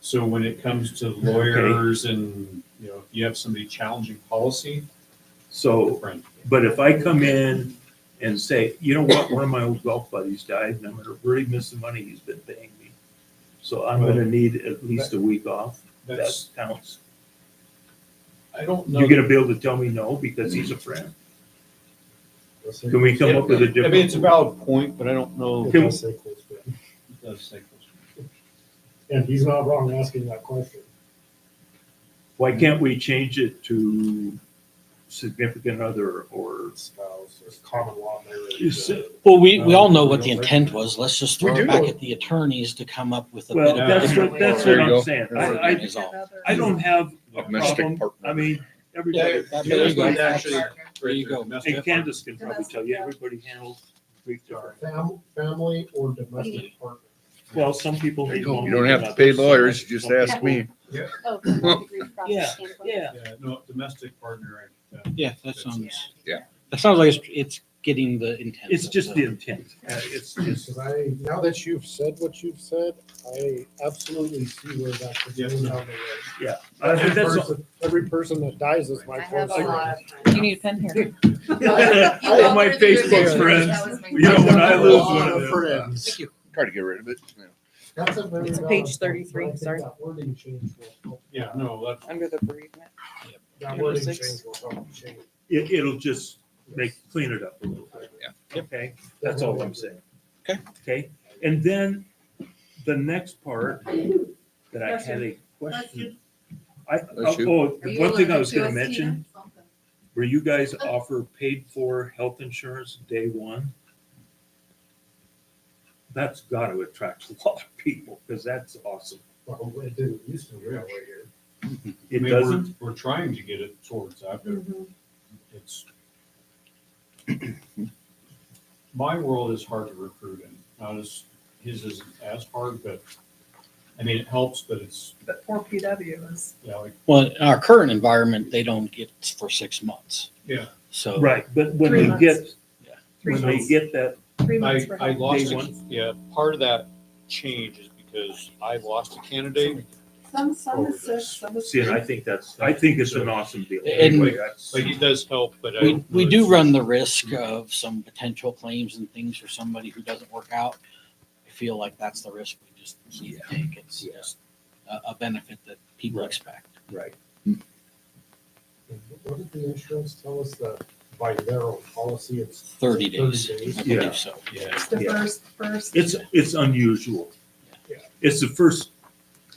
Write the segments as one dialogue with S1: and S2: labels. S1: So when it comes to lawyers and, you know, if you have somebody challenging policy,
S2: So,
S1: different.
S2: but if I come in and say, you know what, one of my old golf buddies died and I'm gonna really miss the money he's been paying me. So I'm gonna need at least a week off. That
S1: That's,
S2: counts.
S1: I don't know.
S2: You're gonna be able to tell me no because he's a friend. Can we come up with a
S1: I mean, it's a
S2: different?
S1: valid point, but I don't know.
S3: It does say close friend.
S1: It does say close
S3: And he's not wrong asking that question.
S2: Why can't we change it to significant other or?
S3: Spouse, there's common law marriage.
S2: Is
S3: uh,
S2: it-
S4: Well, we, we all know
S3: Um,
S4: what the intent was. Let's just throw
S3: We do
S4: it back
S3: know.
S4: at the attorneys to come up with a
S2: Well,
S4: bit of a
S2: that's
S4: different.
S2: what, that's
S5: There
S2: what
S5: you
S2: I'm
S5: go.
S2: saying. I,
S4: wording
S2: I,
S4: is all.
S2: I don't have a
S1: friend.
S5: Domestic
S2: problem.
S5: partner.
S2: I mean, everybody.
S1: Yeah,
S4: There you go.
S1: that's actually-
S4: There you go.
S1: Domestic
S2: And Candace can probably
S6: Domestic,
S2: tell you,
S6: yeah.
S2: everybody handles Greek different.
S3: Fam, family or domestic partner.
S2: Well, some people.
S5: There
S2: need
S5: you go.
S2: one,
S5: You don't have to
S2: others.
S5: pay lawyers, you just
S2: Some
S5: ask
S2: people-
S5: me.
S6: Oh, from a degree of process
S2: Yeah,
S6: standpoint.
S2: Yeah,
S1: Yeah, no, domestic partner. uh,
S4: Yeah, that
S6: Yeah.
S4: sounds,
S5: Yeah.
S4: that sounds like it's, it's getting the intent.
S2: it's
S4: of
S2: just the
S4: the-
S2: intent. Uh, It's, it's,
S3: Cause I, now that you've said what you've said, I absolutely see where that could go
S1: Yes.
S3: down the road.
S2: I think
S3: Every
S2: that's-
S3: person, every person that dies is my
S7: I have
S3: close
S7: a
S3: friend.
S7: lot of.
S6: You need a pen here.
S2: All my Facebook friends, you know, when I lose one of them. uh,
S3: friends.
S5: Try to get rid of it. yeah.
S3: That's a very.
S7: It's a
S3: valid
S7: page
S3: point,
S7: 33,
S3: but I think
S7: sorry.
S3: That wording change will help.
S1: Yeah, no, that's.
S7: Under the bereavement.
S3: That
S7: Number
S3: wording
S7: six.
S3: change will help change.
S2: It, it'll just make, clean it up a little bit.
S5: Yeah.
S2: Okay, that's all I'm
S3: Definitely.
S2: saying.
S4: Okay.
S2: Okay, and then the next part that I had a question. I, oh,
S5: Bless you.
S2: oh, the one thing I was gonna mention, where you guys offer paid for health insurance day one. That's gotta attract a lot of people, because that's awesome.
S3: Well, it didn't used to be that way here.
S2: It
S1: I mean, we're-
S2: doesn't,
S1: We're trying to get it towards that, but
S7: Mm-hmm.
S1: it's. My world is hard to recruit in, not as, his isn't as hard, but, I mean, it helps, but it's,
S7: But poor PW is.
S1: yeah, like,
S4: Well, in our current environment, they don't get for six months.
S1: yeah.
S4: So.
S2: right, but when
S7: Three
S2: they get,
S4: Yeah.
S7: Three
S2: when they
S7: months.
S2: get that
S7: Three months
S1: I,
S7: for
S1: I
S7: help.
S1: lost,
S2: Day
S1: a- yeah, part of that change is because I lost a candidate.
S6: Some, some
S1: Over
S6: is sick,
S1: this.
S6: some is.
S2: Oh, See, and I think that's, I think it's an awesome deal.
S4: And-
S2: Anyway, that's-
S1: Like, it does help, but I.
S4: We,
S1: don't
S4: we
S1: know
S4: do
S1: if-
S4: run the risk of some potential claims and things for somebody who doesn't work out. I feel like that's the risk we just need to take. It's
S2: Yeah.
S4: just a, a benefit that people
S2: Right.
S4: expect.
S2: Right.
S3: What did the insurance tell us that by their own policy, it's
S4: Thirty days,
S3: Thirty days.
S4: I
S2: Yeah.
S4: believe so.
S1: Yeah,
S7: It's the
S2: Yeah.
S7: first, first.
S2: It's, it's unusual.
S3: Yeah.
S2: It's the first,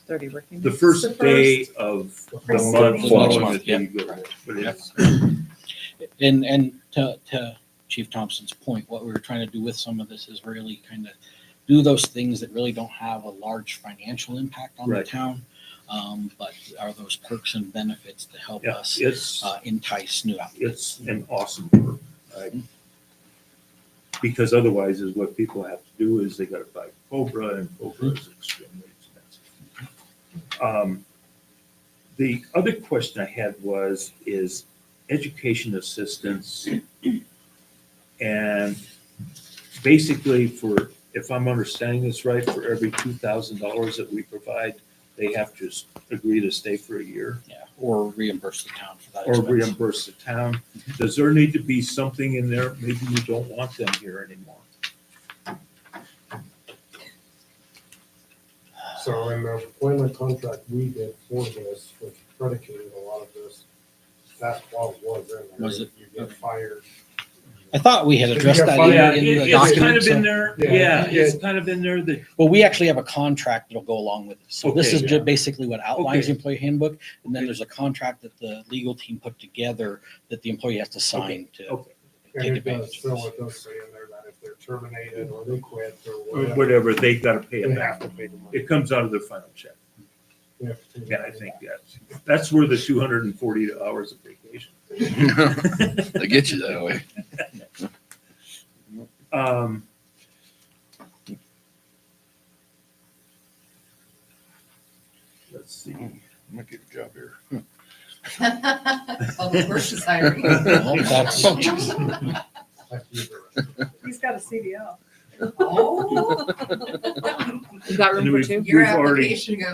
S7: Thirty working.
S2: the
S7: days.
S2: first
S7: It's
S2: day of the
S3: the policy?
S2: month
S7: The
S2: following the
S4: month,
S2: day you go. But it's,
S4: And, and to, to Chief Thompson's point, what we were trying to do with some of this is really kind of do those things that really don't have a large financial impact on the
S2: Right.
S4: town. Um, but are those perks and benefits to help
S2: yeah,
S4: us
S2: it's,
S4: uh, entice new applicants?
S2: it's an awesome work. I- Because otherwise is what people have to do is they gotta buy Cobra and Cobra is extremely expensive. Um, The other question I had was, is education assistance. And basically for, if I'm understanding this right, for every two thousand dollars that we provide, they have to s- agree to stay for a year
S4: Yeah, or reimburse the town for that
S2: or
S4: expense.
S2: reimburse the town. Does there need to be something in there? Maybe you don't want them here anymore.
S3: So in the employment contract we did for this, which predicated a lot of this, that clause was in there.
S4: Was it?
S3: You get fired.
S4: I thought we had
S3: If you
S4: addressed
S3: have
S4: that
S3: fun-
S4: in in
S2: it-
S4: the uh,
S2: It's kind
S4: document.
S2: of in
S4: so-
S2: there,
S3: Yeah.
S2: yeah, it's kind of in there that,
S4: Well, we actually have a contract that'll go along with this. So this
S2: Okay.
S4: is
S3: Yeah.
S4: just basically what outlines the employee handbook. And then
S2: Okay.
S4: there's a contract that the legal team put together that the employee has to sign to
S2: okay,
S4: take
S3: And it does,
S4: advantage of
S3: so
S4: this.
S3: it does say in there that if they're terminated or they quit or
S2: or
S3: whatever.
S2: whatever, they gotta pay
S3: They
S2: it back.
S3: have to pay the money.
S2: It comes out of their final check.
S3: They have to pay the
S2: Yeah, I
S3: money
S2: think
S3: back.
S2: that's, that's where the two hundred and forty hours of vacation.
S5: They get you that way.
S2: Um, Let's see.
S5: I'm gonna get a job here.
S7: Public Works Oh, is hiring.
S4: Well, that's-
S3: I feel the rest.
S7: He's got a CDL.
S8: You got room
S2: And
S8: for
S2: we've-
S8: two?
S2: We've already